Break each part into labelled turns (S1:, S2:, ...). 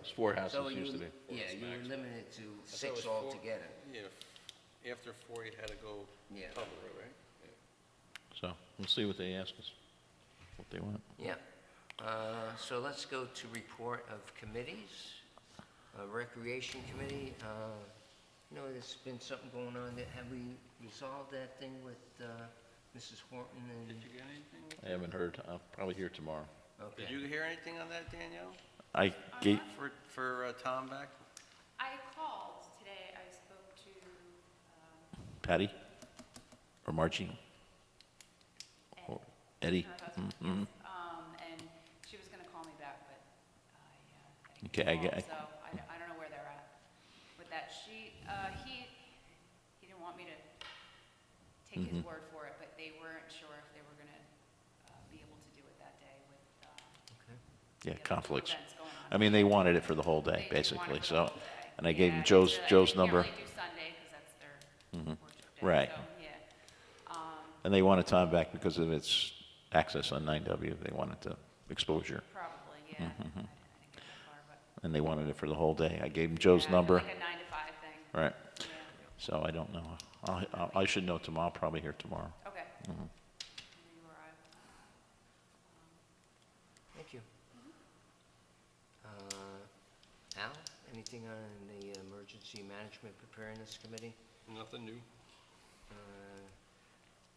S1: It's four
S2: uh, So
S1: houses
S2: you,
S1: used to be.
S2: yeah, you were limited to
S3: I thought it was
S2: six
S3: four-
S2: altogether.
S3: Yeah, f- after four, you had to go
S2: Yeah.
S3: public, right?
S1: So we'll see what they ask us, what they want.
S2: Yeah. Uh, So let's go to report of committees. Uh, Recreation Committee, uh, you know, there's been something going on. that- Have we resolved that thing with uh, Mrs. Horton
S3: Did
S2: and?
S3: you get anything?
S1: I haven't heard, I'll probably hear tomorrow.
S3: Did
S2: Okay.
S3: you hear anything on that, Danielle,
S1: I gave,
S3: for, for uh, Tom back?
S4: I called today, I spoke to, um,
S1: Patty or Margie? Or Eddie?
S4: her
S1: Mm,
S4: husband,
S1: mm.
S4: um, and she was gonna call me back, but I, uh, I
S1: Okay, I
S4: didn't
S1: get-
S4: get called, so I, don't- I don't know where they're at with that. She, uh, he, he didn't want me to take
S1: Mm-hmm.
S4: his word for it, but they weren't sure if they were gonna, uh, be able to do it that day with, uh,
S1: Yeah,
S4: the other
S1: conflicts.
S4: events going on.
S1: I mean, they wanted it for the whole day,
S4: They- they wanted
S1: basically,
S4: it
S1: so.
S4: all day.
S1: And I gave
S4: Yeah,
S1: them
S4: it's,
S1: Joe's,
S4: uh,
S1: Joe's
S4: They
S1: number,
S4: can't really do Sunday, because that's their
S1: Mhm.
S4: worship day.
S1: Right.
S4: so, yeah. Um,
S1: and they wanted time back because of its access on 9W. They wanted the exposure,
S4: Probably, yeah.
S1: Mm-hmm.
S4: I didn't I didn't get that far, but.
S1: and they wanted it for the whole day. I gave them Joe's
S4: Yeah,
S1: number,
S4: Like a nine to five thing,
S1: right?
S4: yeah,
S1: So I don't know. I'll- I'll- I should know tomorrow, I'll probably hear tomorrow.
S4: okay.
S1: Mhm.
S4: Maybe where I-
S2: Thank you. Uh, Al, anything on the Emergency Management Preparedness Committee?
S3: Nothing new.
S2: Uh,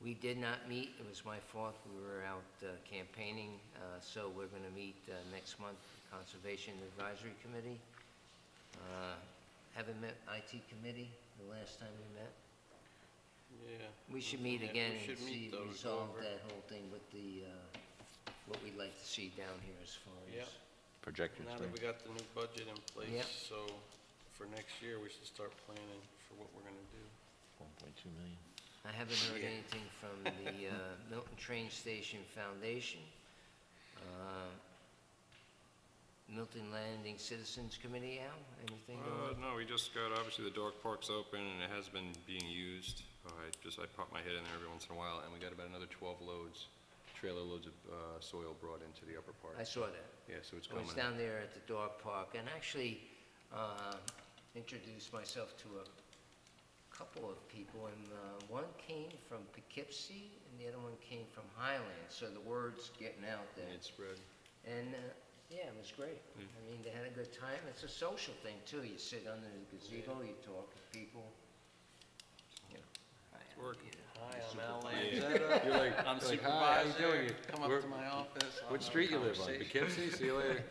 S2: We did not meet, it was my fault, we were out uh, campaigning, uh, so we're going to meet uh, next month, Conservation Advisory Committee. Uh, Haven't met IT Committee the last time we met.
S3: Yeah.
S2: We should meet
S3: Yeah, we
S2: again and
S3: should
S2: see,
S3: meet those, go
S2: resolve
S3: over.
S2: that whole thing with the, uh, what we'd like to see down here as far as.
S3: Yep.
S1: Projectors,
S3: Now that we got the new budget in
S2: Yep.
S3: place, so for next year, we should start planning for what we're gonna do.
S1: 1.2 million.
S2: I haven't heard
S3: Yeah.
S2: anything from the uh, Milton Train Station Foundation, uh, Milton Landing Citizens Committee, Al, anything?
S5: Uh,
S2: on-
S5: no, we just got, obviously, the dog park's open, and it has been being used. Uh, I just, I pop my head in there every once in a while, and we got about another twelve loads, trailer loads of, uh, soil brought into the upper part.
S2: I saw that.
S5: Yeah, so Uh, it's
S2: I
S5: coming.
S2: was down there at the dog park and actually uh, introduced myself to a couple of people. And uh, one came from Poughkeepsie and the other one came from Highland, so the word's getting out there.
S5: And it's spread.
S2: And, uh, yeah, it was great.
S5: Hmm.
S2: I mean, they had a good time. It's a social thing, too. You sit under the gazebo, you talk with people. Yeah.
S5: working.
S3: Hi, I'm Al Lanzetta.
S6: You're like,
S3: I'm
S6: like, "Hi, how you
S3: supervisor.
S6: doing? You-
S3: Come up
S6: where-
S3: to my office. I'll
S6: What
S3: have a
S6: street you live on?
S3: conversation."
S6: Poughkeepsie? See you later.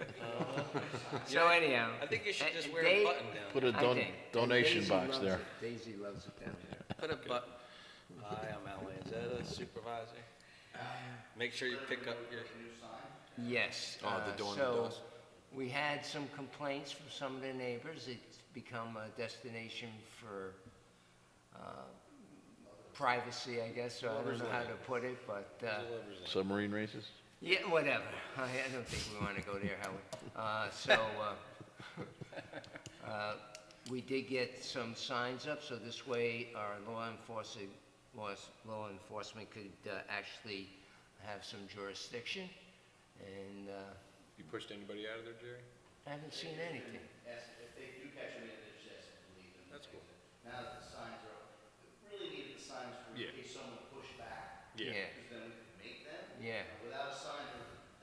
S2: So anyhow.
S3: I think you should just
S2: uh,
S3: wear
S2: Dave-
S3: a button down.
S1: Put a
S2: I
S1: don-
S2: think-
S1: donation
S2: Daisy
S1: box
S2: loves
S1: there.
S2: it. Daisy loves it down there.
S3: Put a button. Hi, I'm Al Lanzetta, supervisor. Make sure you pick up your,
S2: Yes.
S5: Oh, the
S2: uh,
S5: dormer
S2: so
S5: does.
S2: We had some complaints from some of the neighbors. It's become a destination for uh, privacy, I guess, so I don't know how to put it, but. uh,
S1: Submarine races?
S2: Yeah, whatever. I I don't think we want to go there, Howard. Uh, So, uh, uh, we did get some signs up, so this way our law enforcement, laws- law enforcement could uh, actually have some jurisdiction. And uh,
S5: You pushed anybody out of there, Jerry?
S2: I haven't seen anything.
S7: Yes, if they do catch them, they just have to leave them.
S5: That's cool.
S7: Now that the signs are, up, we really needed the signs for in
S5: Yeah.
S7: case someone pushed back, because then we could make them.
S2: Yeah,
S7: And Without a sign,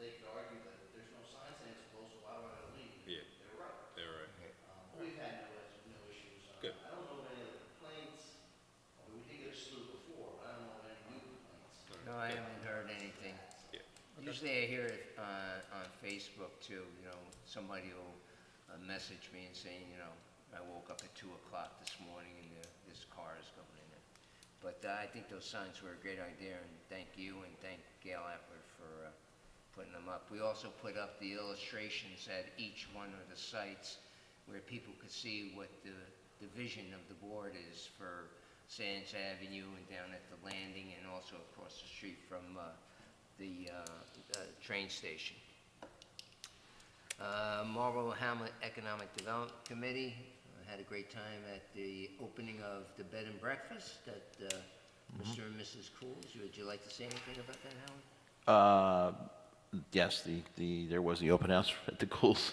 S7: they could argue that there's no sign saying it's closed, so why would I leave?
S5: Yeah,
S7: They're right.
S5: they're right.
S7: Um, We've had no, is- no issues. Uh,
S5: Good.
S7: I don't know of any other complaints. I mean, we did get a slew before, but I don't know of any new complaints.
S2: no, I haven't heard anything.
S5: Yeah.
S2: Usually I hear it uh, on Facebook too, you know, somebody will uh, message me and saying, you know, I woke up at two o'clock this morning and uh, this car is going in it. But uh, I think those signs were a great idea and thank you and thank Gail Atwood for uh, putting them up. We also put up the illustrations at each one of the sites where people could see what the, the vision of the board is for Sands Avenue and down at the landing and also across the street from uh, the uh, uh, train station. Uh, Marlboro Hamlet Economic Development Committee uh, had a great time at the opening of the bed and breakfast at uh, Mr. and Mrs. Cool's. Would you like to say anything about that, Howard?
S1: Uh, yes, the, the, there was the open house at the Coles